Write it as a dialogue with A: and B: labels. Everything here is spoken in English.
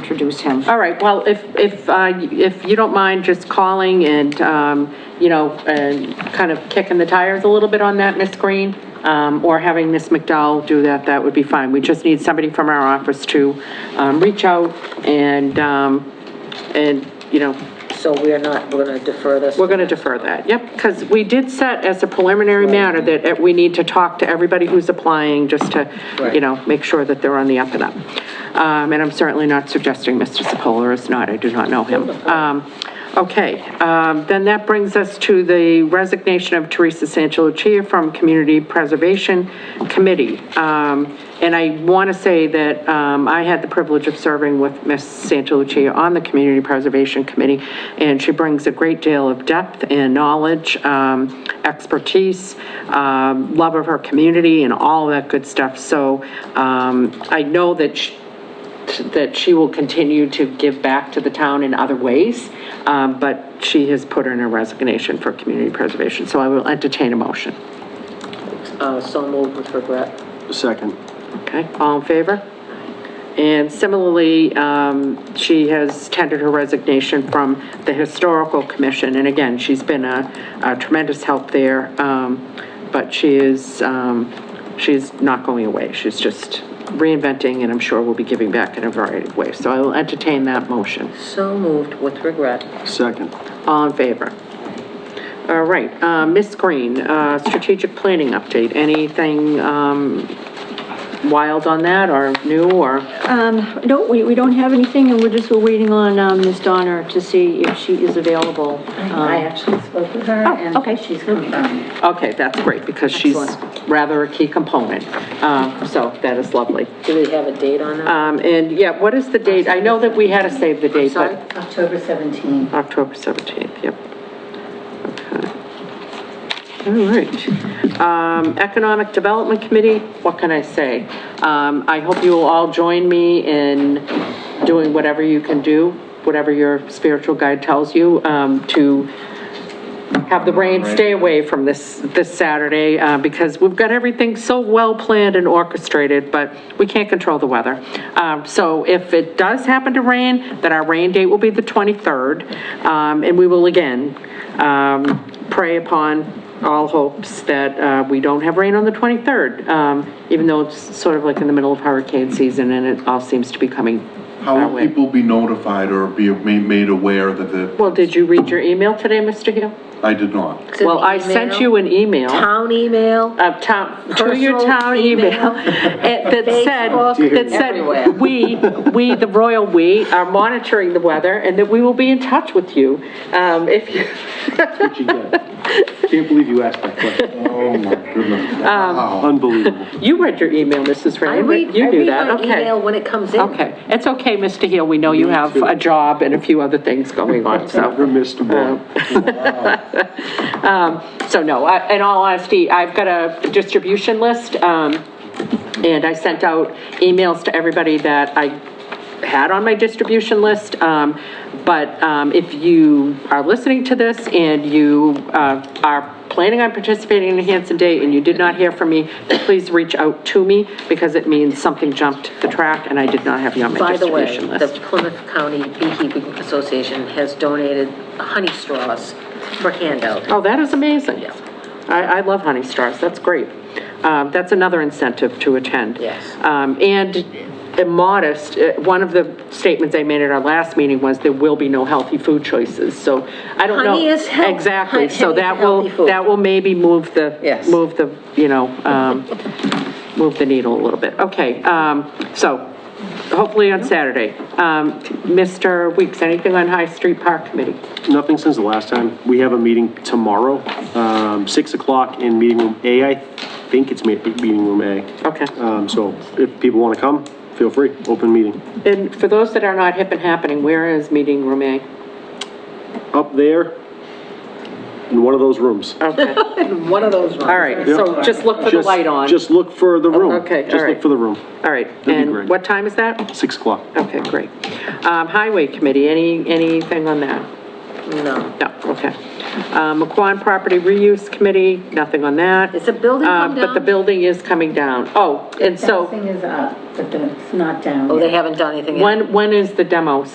A: introduce him.
B: All right, well, if, if, uh, if you don't mind just calling and, um, you know, and kind of kicking the tires a little bit on that, Ms. Green, um, or having Ms. McDowell do that, that would be fine. We just need somebody from our office to um, reach out and, um, and, you know,
C: So we are not, we're going to defer this?
B: we're going to defer that, yep, because we did set as a preliminary matter that uh, we need to talk to everybody who's applying, just to, you know, make sure that they're on the up and up. Um, And I'm certainly not suggesting Mr. Sepola is not, I do not know him. Um, Okay, um, then that brings us to the resignation of Teresa Sanchalucia from Community Preservation Committee. Um, And I want to say that um, I had the privilege of serving with Ms. Santalucia on the Community Preservation Committee, and she brings a great deal of depth and knowledge, um, expertise, um, love of her community, and all that good stuff. So um, I know that she- that she will continue to give back to the town in other ways, um, but she has put in her resignation for community preservation, so I will entertain a motion.
C: Uh, So moved with regret.
D: Second.
B: Okay, all in favor? And similarly, um, she has tendered her resignation from the Historical Commission, and again, she's been a a tremendous help there, um, but she is, um, she's not going away, she's just reinventing, and I'm sure will be giving back in a variety of ways. So I will entertain that motion.
C: So moved with regret.
D: Second.
B: All in favor? All right, uh, Ms. Green, uh, strategic planning update, anything um, wild on that, or new, or?
A: Um, No, we, we don't have anything, and we're just, we're waiting on um, Ms. Donner to see if she is available.
C: I actually spoke with her, and
A: Um, okay.
C: she's confirmed.
B: Okay, that's great, because she's
C: Excellent.
B: rather a key component, Um, so that is lovely.
C: Do we have a date on that?
B: Um, And, yeah, what is the date? I know that we had to save the date,
C: Sorry?
B: but
C: October 17th.
B: October 17th, yep. Okay. All right. Um, Economic Development Committee, what can I say? Um, I hope you will all join me in doing whatever you can do, whatever your spiritual guide tells you, um, to have the rain stay away from this, this Saturday, uh, because we've got everything so well planned and orchestrated, but we can't control the weather. Um, So if it does happen to rain, then our rain date will be the 23rd, um, and we will again um, prey upon all hopes that uh, we don't have rain on the 23rd, um, even though it's sort of like in the middle of hurricane season, and it all seems to be coming
E: How
B: our
E: will
B: way.
E: people be notified or be ma- made aware that the,
B: Well, did you read your email today, Mr. Hill?
E: I did not.
B: Well, I sent you an email.
C: Town email?
B: of town, to your
C: Personal
B: town email,
C: email.
B: it- that
C: Facebook,
B: said, that
C: everywhere.
B: said, we, we, the royal we, are monitoring the weather, and that we will be in touch with you, um, if you,
D: What you get? Can't believe you asked that question.
E: Oh, my goodness. Wow.
D: Um, Unbelievable.
B: you read your email, Mrs.
C: I
B: Ray,
C: read, I
B: you knew
C: read
B: that,
C: my
B: okay.
C: email when it comes in.
B: Okay, it's okay, Mr. Hill, we know you have a job and a few other things going on, so.
D: Never missed a one.
B: So no, I- in all honesty, I've got a distribution list, um, and I sent out emails to everybody that I had on my distribution list. Um, But um, if you are listening to this and you uh, are planning on participating in Hanson Day and you did not hear from me, then please reach out to me because it means something jumped the track and I did not have you on my
C: By the way,
B: distribution list.
C: the Plymouth County Beekeeping Association has donated honey straws for handout.
B: Oh, that is amazing. I, I love Honey Stars, that's great. Um, that's another incentive to attend.
C: Yes.
B: Um, and immodest, uh, one of the statements I made at our last meeting was there will be no healthy food choices, so I don't know.
C: Honey is health-
B: Exactly, so
C: honey is
B: that will,
C: healthy food.
B: that will maybe move the.
C: Yes.
B: Move the, you know, um, move the needle a little bit. Okay, um, so hopefully on Saturday. Um, Mr. Weeks, anything on High Street Park Committee?
D: Nothing since the last time. We have a meeting tomorrow, um, 6 o'clock in meeting room A, I think it's me- meeting room A.
B: Okay.
D: Um, So if people want to come, feel free, open meeting.
B: And for those that are not hip and happening, where is meeting room A?
D: Up there, in one of those rooms.
B: Okay,
C: One of those ones.
B: all right, so just look for the
D: Just-
B: light on.
D: Just look for the room.
B: Okay, all
D: Just
B: right.
D: look for the room,
B: All right,
D: be
B: and
D: great.
B: what time is that?
D: 6 o'clock.
B: Okay, great. Um, Highway Committee, any, anything on that?
C: No.
B: No, okay. Um, McQuon Property Reuse Committee, nothing on that.
C: Is the building come
B: Uh, But the
C: down?
B: building is coming down. Oh, and so,
F: Fencing is up, but the- it's not down
C: Oh,
F: yet.
C: they haven't done anything yet?
B: when, when is the demo